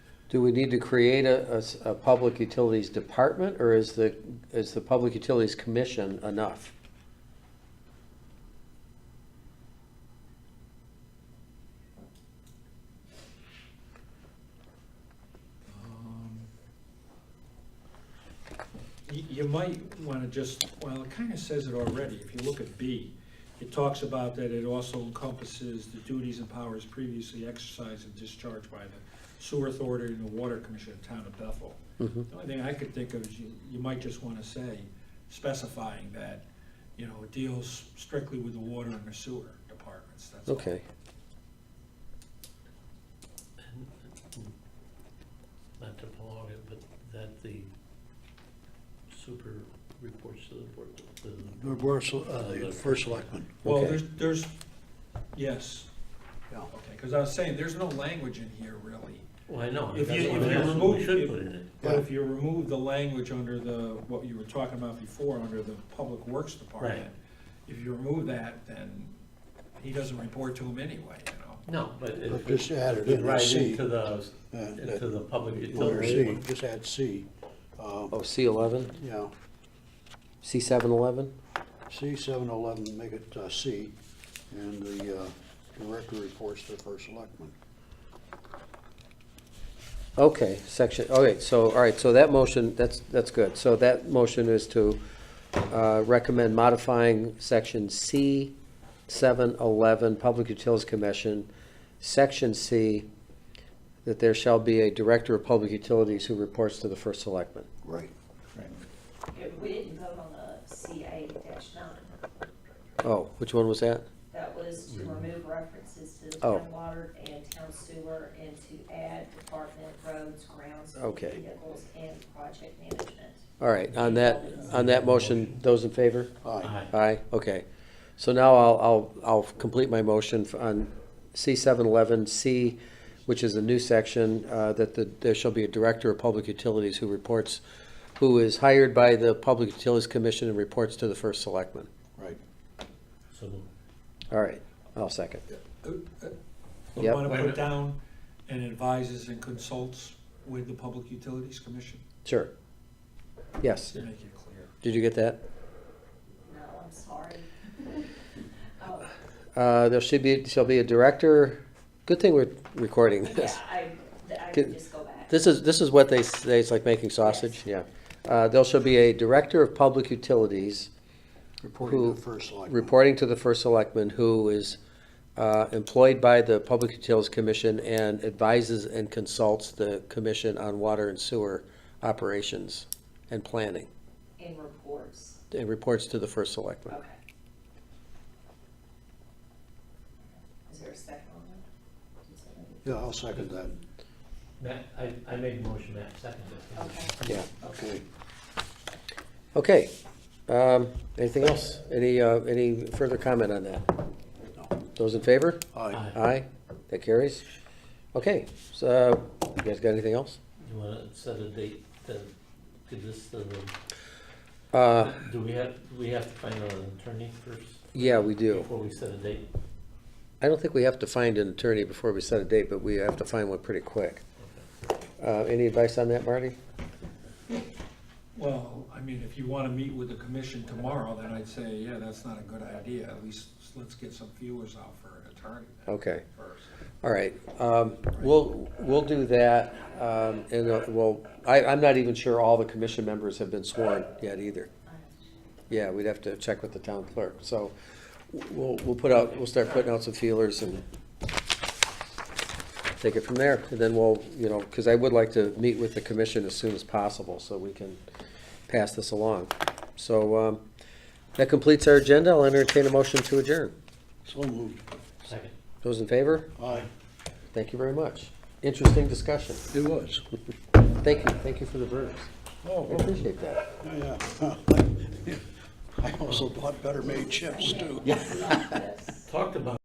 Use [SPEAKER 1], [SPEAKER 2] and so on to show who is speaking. [SPEAKER 1] Do we need to create a, a s- a public utilities department, or is the, is the Public Utilities Commission enough?
[SPEAKER 2] Um, You, you might wanna just, well, it kinda says it already, if you look at B, it talks about that it also encompasses the duties and powers previously exercised and discharged by the sewer authority and the water commission of town of Bethel.
[SPEAKER 1] Mhm.
[SPEAKER 2] The only thing I could think of is you, you might just wanna say, specifying that, you know, it deals strictly with the water and the sewer departments, that's all.
[SPEAKER 1] Okay,
[SPEAKER 3] not to prolong it, but that the super reports to the board, the,
[SPEAKER 4] The first, uh, the first selectman.
[SPEAKER 2] Well,
[SPEAKER 1] Okay.
[SPEAKER 2] there's, there's, yes,
[SPEAKER 4] Yeah.
[SPEAKER 2] okay, cause I was saying, there's no language in here really.
[SPEAKER 3] well, I know.
[SPEAKER 2] If
[SPEAKER 3] that's
[SPEAKER 2] you-
[SPEAKER 3] what
[SPEAKER 2] if you
[SPEAKER 3] that's what
[SPEAKER 2] remove-
[SPEAKER 3] We should
[SPEAKER 2] if-
[SPEAKER 3] put in it.
[SPEAKER 2] But if you remove the language under the, what you were talking about before, under the Public Works Department,
[SPEAKER 3] Right.
[SPEAKER 2] if you remove that, then he doesn't report to him anyway, you
[SPEAKER 3] No, but if.
[SPEAKER 4] Just add it in,
[SPEAKER 3] Right
[SPEAKER 4] C.
[SPEAKER 3] into the,
[SPEAKER 4] uh,
[SPEAKER 3] into
[SPEAKER 4] that-
[SPEAKER 3] the public
[SPEAKER 4] Letter C,
[SPEAKER 3] utility.
[SPEAKER 4] just add C. Uh,
[SPEAKER 1] oh, C eleven,
[SPEAKER 4] Yeah,
[SPEAKER 1] C seven eleven?
[SPEAKER 4] C seven eleven, make it uh, C, and the uh, director reports to the first selectman.
[SPEAKER 1] Okay, section, all right, so, all right, so that motion, that's, that's good. So that motion is to uh, recommend modifying section C seven eleven, Public Utilities Commission, section C, that there shall be a Director of Public Utilities who reports to the First Selectman.
[SPEAKER 4] Right.
[SPEAKER 5] Yeah, We didn't vote on the CA nine.
[SPEAKER 1] Oh, which one was that?
[SPEAKER 5] That was to remove references to the
[SPEAKER 1] Mm-hmm. Oh.
[SPEAKER 5] town water and town sewer and to add department roads, grounds,
[SPEAKER 1] Okay.
[SPEAKER 5] vehicles, and project management.
[SPEAKER 1] All right, on that, on that motion, those in favor?
[SPEAKER 4] Aye.
[SPEAKER 3] Aye.
[SPEAKER 1] Aye, okay. So now I'll, I'll, I'll complete my motion f- on C seven eleven C, which is a new section, uh, that the, there shall be a director of public utilities who reports, who is hired by the Public Utilities Commission and reports to the first selectman.
[SPEAKER 4] Right.
[SPEAKER 3] So,
[SPEAKER 1] All right, I'll second.
[SPEAKER 2] know? You
[SPEAKER 1] Yep.
[SPEAKER 2] wanna
[SPEAKER 3] Wait a
[SPEAKER 2] put
[SPEAKER 3] minute.
[SPEAKER 2] down, and advises and consults with the Public Utilities Commission,
[SPEAKER 1] Sure. Yes,
[SPEAKER 2] to make it clear.
[SPEAKER 1] did you get that?
[SPEAKER 5] No, I'm sorry. Oh,
[SPEAKER 1] Uh, there should be, shall be a director, good thing we're recording
[SPEAKER 5] Yeah,
[SPEAKER 1] this.
[SPEAKER 5] I, I
[SPEAKER 1] Good.
[SPEAKER 5] would just go back.
[SPEAKER 1] This is, this is what they say, it's like making sausage, yeah. Uh, there shall be a director of public utilities
[SPEAKER 4] Reporting
[SPEAKER 1] Who-
[SPEAKER 4] to the first selectman.
[SPEAKER 1] reporting to the first selectman who is uh, employed by the Public Utilities Commission and advises and consults the commission on water and sewer operations and planning,
[SPEAKER 5] In reports,
[SPEAKER 1] and reports to the first selectman.
[SPEAKER 5] okay. Is there a second on that?
[SPEAKER 4] Yeah, I'll second that.
[SPEAKER 3] Matt, I, I made a motion, Matt, second. it.
[SPEAKER 5] Okay.
[SPEAKER 1] Yeah,
[SPEAKER 4] Okay.
[SPEAKER 1] okay. Um, Anything else? Any, uh, any further comment on that? Those in favor?
[SPEAKER 4] Aye.
[SPEAKER 1] Aye, that carries. Okay, so, you guys got anything else?
[SPEAKER 3] You wanna set a date to give this to the,
[SPEAKER 1] Uh,
[SPEAKER 3] do we have, do we have to find an attorney first?
[SPEAKER 1] Yeah, we do.
[SPEAKER 3] Before we set a date?
[SPEAKER 1] I don't think we have to find an attorney before we set a date, but we have to find one pretty quick. Uh, Any advice on that, Marty?
[SPEAKER 2] Well, I mean, if you wanna meet with the commission tomorrow, then I'd say, yeah, that's not a good idea, at least let's get some viewers out for an attorney
[SPEAKER 1] Okay,
[SPEAKER 2] first.
[SPEAKER 1] all right. Um, We'll, we'll do that, um, and uh, we'll, I, I'm not even sure all the commission members have been sworn yet either. Yeah, we'd have to check with the town clerk, so we'll, we'll put out, we'll start putting out some feelers and take it from there, and then we'll, you know, because I would like to meet with the commission as soon as possible, so we can pass this along. So, um, that completes our agenda, I'll entertain a motion to adjourn.
[SPEAKER 4] So moved.
[SPEAKER 3] Second.
[SPEAKER 1] Those in favor,
[SPEAKER 4] Aye.
[SPEAKER 1] thank you very much. Interesting discussion,
[SPEAKER 4] It was.
[SPEAKER 1] thank you, thank you for the verbs,
[SPEAKER 4] Oh,
[SPEAKER 1] I appreciate that.
[SPEAKER 4] yeah. I also bought better made chips, too.
[SPEAKER 5] Yes.
[SPEAKER 3] Talked about